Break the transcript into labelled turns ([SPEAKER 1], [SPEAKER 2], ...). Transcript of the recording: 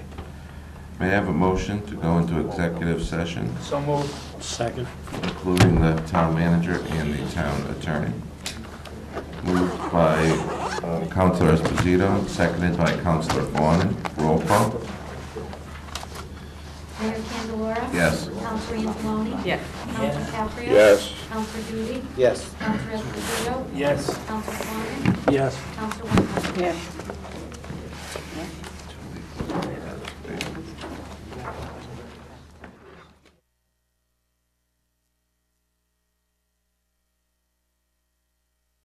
[SPEAKER 1] May I have a motion to go into executive session,
[SPEAKER 2] So moved.
[SPEAKER 3] Second.
[SPEAKER 1] including the town manager and the town attorney? Moved by uh, Counselor Esposito, seconded by Counselor Vaughn. Roll call?
[SPEAKER 4] Mayor Candelora.
[SPEAKER 1] Yes.
[SPEAKER 4] Councilor Angeloni.
[SPEAKER 5] Yes.
[SPEAKER 4] Councilor Caprio.
[SPEAKER 6] Yes.
[SPEAKER 4] Councilor Duty.
[SPEAKER 3] Yes.
[SPEAKER 4] Councilor Esposito.
[SPEAKER 2] Yes.
[SPEAKER 4] Councilor Fawnin.
[SPEAKER 3] Yes.
[SPEAKER 4] Councilor Wentworth.
[SPEAKER 5] Yes.